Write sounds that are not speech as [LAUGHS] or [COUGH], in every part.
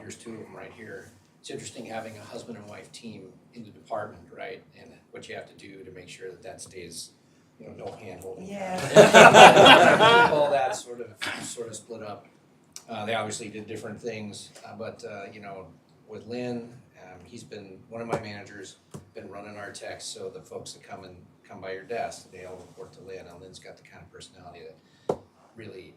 here's two of them right here. It's interesting having a husband and wife team in the department, right? And what you have to do to make sure that that stays, you know, no handholding. Yeah. [LAUGHS] All that sort of, sort of split up. Uh, they obviously did different things, uh, but, uh, you know, with Lynn, um, he's been, one of my managers, been running our techs, so the folks that come and, come by your desk, they all report to Lynn, and Lynn's got the kind of personality that really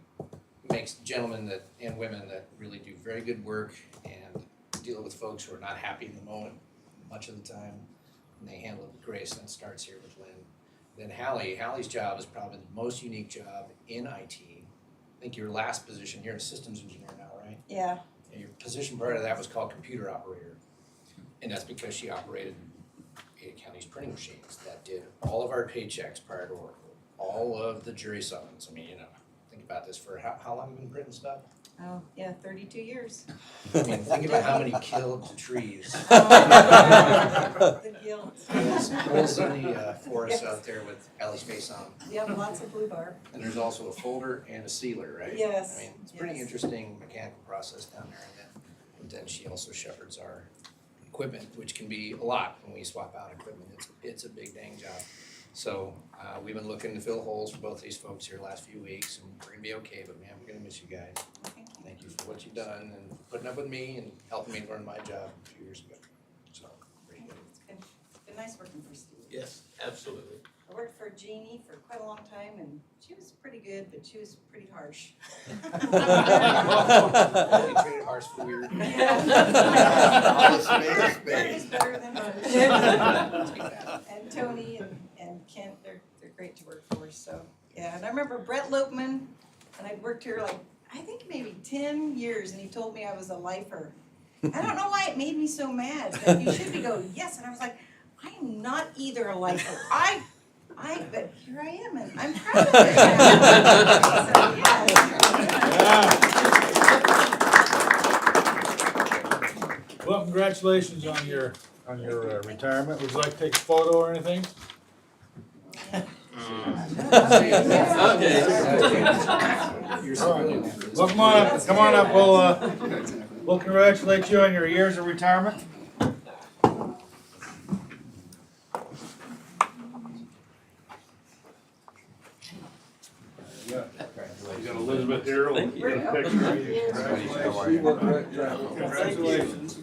makes gentlemen that and women that really do very good work and deal with folks who are not happy in the moment much of the time. And they handle it with grace, and it starts here with Lynn. Then Hallie, Hallie's job is probably the most unique job in IT. I think your last position, you're a systems engineer now, right? Yeah, And your position prior to that was called computer operator. And that's because she operated Ada County's printing machines that did all of our paychecks prior to Oracle, all of the jury summons. I mean, you know, think about this for how, how long have you been printing stuff? oh, yeah, thirty-two years. [LAUGHS] I mean, think about how many killed trees. Oh, The guilt. There's holes in the uh, forest out there with Ellie's face on. 'em. Yeah, lots of blue bar. And there's also a folder and a sealer, right? Yes, I mean, it's a pretty yes. interesting mechanical process down there. And then, but then she also shepherds our equipment, which can be a lot when we swap out equipment. It's, it's a big dang job. So uh, we've been looking to fill holes for both these folks here last few weeks, and we're gonna be okay. But man, we're gonna miss you guys. Thank you. Thank you for what you've done and putting up with me and helping me learn my job a few years ago. So, pretty [LAUGHS] good. It's been, it's been nice working for Steve. Yes, absolutely. I worked for Jeannie for quite a long time and she was pretty good, but she was pretty harsh. [LAUGHS] Well, you treated ours for [LAUGHS] weird. Mine is better than hers. And Tony and, and Kent, they're, they're great to work for, so, yeah, and I remember Brett Lopman, and I'd worked here like, I think maybe ten years, and he told me I was a lifer. I don't know why it made me so mad, that you should be go, yes, and I was like, I am not either a lifer, I, I, but here I am, and I'm proud of it. So, yeah. Well, congratulations on your, on your uh, retirement. Would you like to take a photo or anything? You're civilian. Well, come on up, come on up, we'll, uh, we'll congratulate you on your years of retirement. You got Elizabeth here, we'll Thank get a picture of you. Congratulations.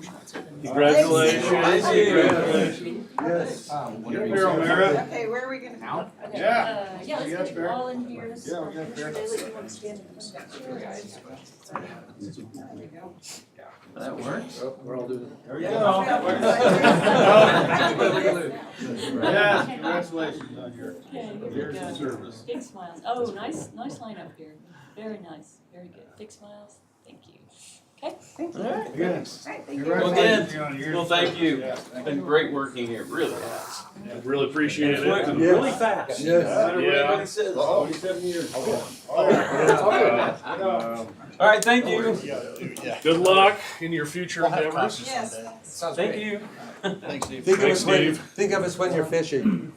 Congratulations. Congratulations. Yes. Get here, O'Meara. Okay, where are we gonna? Now? Yeah. Uh, yeah, let's You get got you all in Yeah, here. we got Sure, Barrett. David, you wanna stand in front of the camera? That works. We're all doing There you go. Yeah. Yes, congratulations on your Okay, here we years of go. service. Big smiles. Oh, nice, nice lineup here. Very nice, very good. Big smiles. Thank you. Thank you. All right. Yes. Alright, thank you. Congratulations on your years. Well, thank you. Yeah, It's thank been you. great working here, really has. Really appreciate It's went it. Yeah. really fast. Yes. No matter what Yeah. anybody says. Oh, Forty-seven years. Uh, Oh. All right, Um, thank you. Good luck in your future endeavors. Yes. Sounds Thank you. Think of Thanks, us when, Dave. think of us when you're fishing.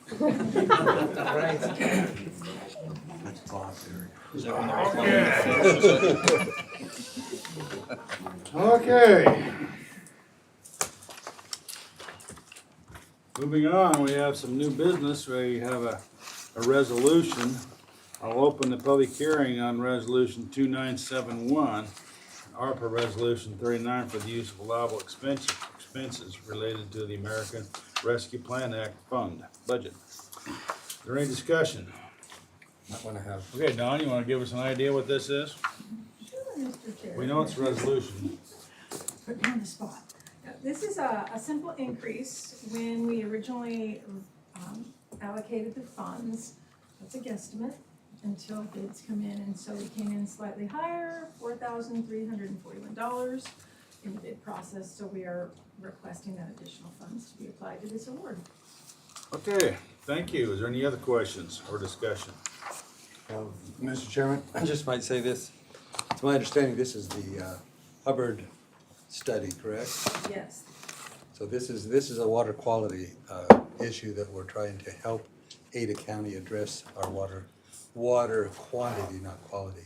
Okay. Moving on, we have some new business. We have a, a resolution. I'll open the public hearing on resolution two nine seven one, ARPA resolution thirty-nine for the use of allowable expenses, expenses related to the American Rescue Plan Act fund budget. Is there any discussion? Not wanna have. Okay, Don, you wanna give us an idea what this is? Mr. Chair. We know it's a resolution. Put me on the spot. Now, This is a, a simple increase. When we originally um, allocated the funds, that's a guesstimate until bids come in. And so we came in slightly higher, four thousand three hundred and forty-one dollars in the bid process. So we are requesting that additional funds to be applied to this award. Okay, thank you. Is there any other questions or discussion? Um, Mr. Chairman, I just might say this. It's my understanding this is the uh, Hubbard study, correct? Yes, So this is, this is a water quality uh, issue that we're trying to help Ada County address our water, water quantity, not quality.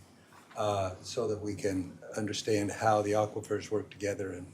uh, So that we can understand how the aquifers work together and